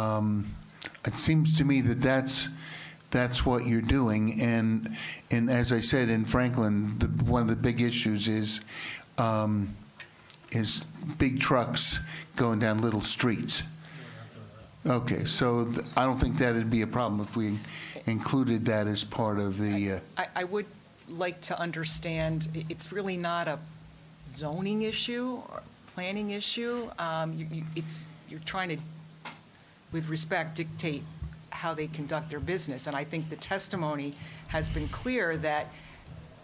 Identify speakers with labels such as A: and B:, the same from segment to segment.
A: Um, It seems to me that that's, that's what you're doing, and, and as I said, in Franklin, the, one of the big issues is, um, is big trucks going down little streets. Okay, so th- I don't think that'd be a problem if we included that as part of the, uh,
B: I, I would like to understand, i- it's really not a zoning issue or planning issue. Um, you- you- It's, you're trying to, with respect, dictate how they conduct their business. And I think the testimony has been clear that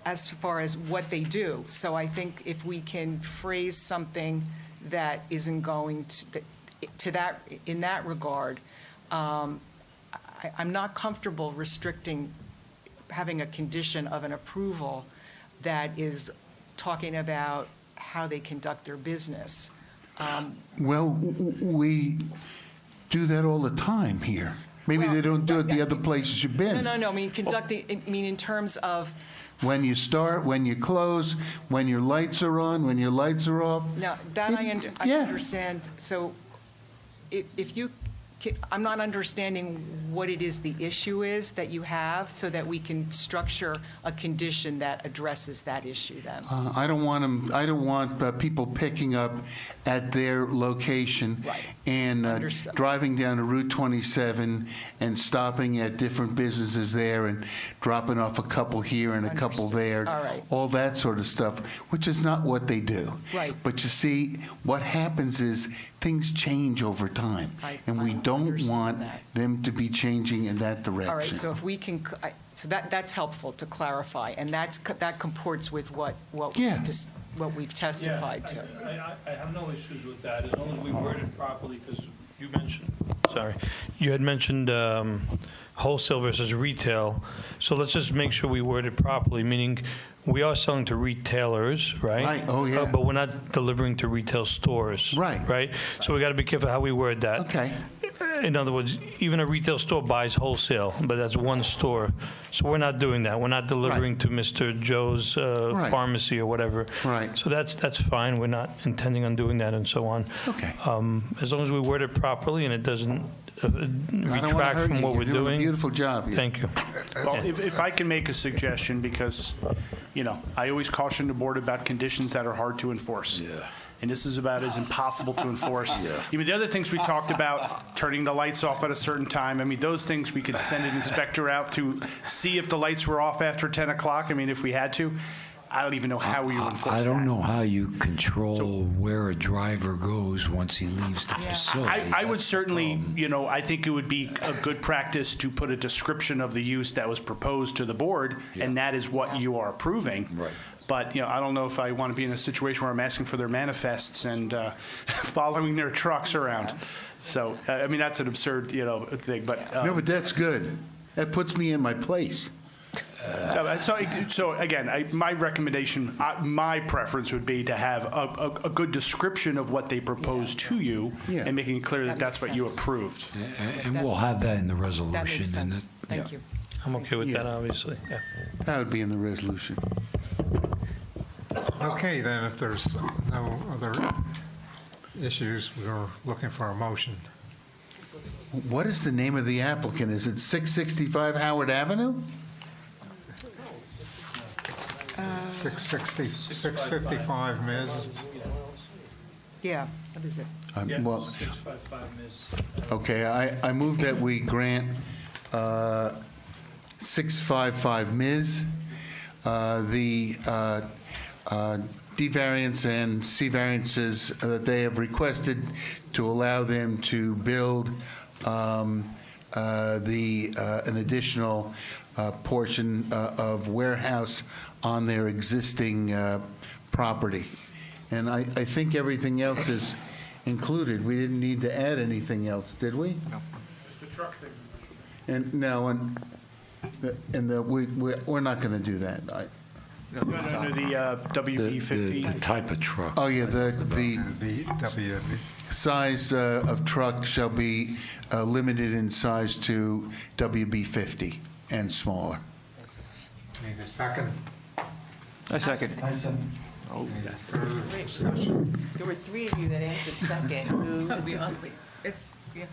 B: as far as what they do. So I think if we can phrase something that isn't going to, that- to that, in that regard, um, I, I'm not comfortable restricting having a condition of an approval that is talking about how they conduct their business. Um,
A: well, w- w- we do that all the time here. Maybe they
B: Well,
A: don't do it the
B: yeah.
A: other places you've been.
B: No, no, no, I mean, conducting, I mean, in terms of,
A: when you start, when you close, when your lights are on, when your lights are off.
B: no, that I under- I
A: Yeah.
B: understand. So if, if you, ca- I'm not understanding what it is the issue is that you have so that we can structure a condition that addresses that issue then.
A: Uh, I don't want 'em- I don't want uh, people picking up at their location
B: Right.
A: and uh,
B: Understood.
A: driving down to Route 27 and stopping at different businesses there and dropping off a couple here and a couple
B: Understood.
A: there.
B: All right.
A: all that sort of stuff, which is not what they do.
B: Right.
A: But you see, what happens is things change over time,
B: I-
A: and we
B: I
A: don't
B: understand
A: want
B: that.
A: them to be changing in that direction.
B: All right, so if we can, I- so that, that's helpful to clarify, and that's, co- that comports with what, what, we
A: Yeah.
B: dis- what we've testified to.
C: Yeah, I- I, I have no issues with that, as long as we word it properly, because you mentioned, sorry, you had mentioned um, wholesale versus retail, so let's just make sure we word it properly, meaning we are selling to retailers, right?
A: Right, oh, yeah.
C: Uh, But we're not delivering to retail stores.
A: Right.
C: Right? So we got to be careful how we word that.
A: Okay.
C: In other words, even a retail store buys wholesale, but that's one store. So we're not doing that. We're not delivering to Mr. Joe's uh,
A: Right.
C: pharmacy or whatever.
A: Right.
C: So that's, that's fine. We're not intending on doing that and so on.
A: Okay.
C: Um, As long as we word it properly and it doesn't uh,
A: I don't wanna
C: retract
A: hurt
C: from
A: you.
C: what
A: You're
C: we're
A: a
C: doing.
A: beautiful job. here.
C: Thank you.
D: Well, if, if I can make a suggestion, because, you know, I always caution the board about conditions that are hard to enforce. Yeah. And this is about as impossible to enforce. Yeah. I mean, the other things we talked about, turning the lights off at a certain time, I mean, those things, we could send an inspector out to see if the lights were off after 10 o'clock, I mean, if we had to. I don't even know how we would enforce that.
E: I don't know how you control where a driver goes once he leaves the
B: Oh,
E: facility.
D: I, I would certainly, you know, I think it would be a good practice to put a description of the use that was proposed to the board, and that is what you are approving.
E: Right.
D: But, you know, I don't know if I want to be in a situation where I'm asking for their manifests and uh, following their trucks around. So, uh, I mean, that's an absurd, you know, thing, but. uh,
A: No, but that's good. That puts me in my place.
D: Uh, So, so again, I, my recommendation, I, my preference would be to have a, a, a good description of what they propose to you
A: Yeah.
D: and making it clear that
B: That
D: that's
B: makes
D: what you
B: sense.
D: approved.
E: A- And we'll have that in the resolution.
B: That makes
E: and
B: sense.
E: it-
B: Thank
E: yeah.
B: you.
C: I'm okay with that,
A: Yeah.
C: obviously. Yeah.
A: That would be in the resolution.
F: Okay, then, if there's no other issues, we're looking for a motion.
A: What is the name of the applicant? Is it 665 Howard Avenue?
F: 660, 655, Ms.
B: Yeah, that is it.
A: I'm-
C: Yeah.
A: Uh, Well,
C: 655 Ms.
A: okay, I, I move that we grant uh, 655 Ms. uh, the uh, uh, D variance and C variances uh, that they have requested to allow them to build um, uh, the, uh, an additional uh, portion uh, of warehouse on their existing uh, property. And I, I think everything else is included. We didn't need to add anything else, did we? No. And no, and, the- and the, we, we- we're not going to do that. I-
D: Under the uh,
E: The- The
D: WB50.
E: the type of truck.
A: Oh, yeah, the, the
F: VW.
A: size uh, of truck shall be uh, limited in size to WB 50 and smaller.
F: Need a second?
G: I second.
F: Further discussion?
H: There were three of you that answered second. Who?
B: It's, yeah.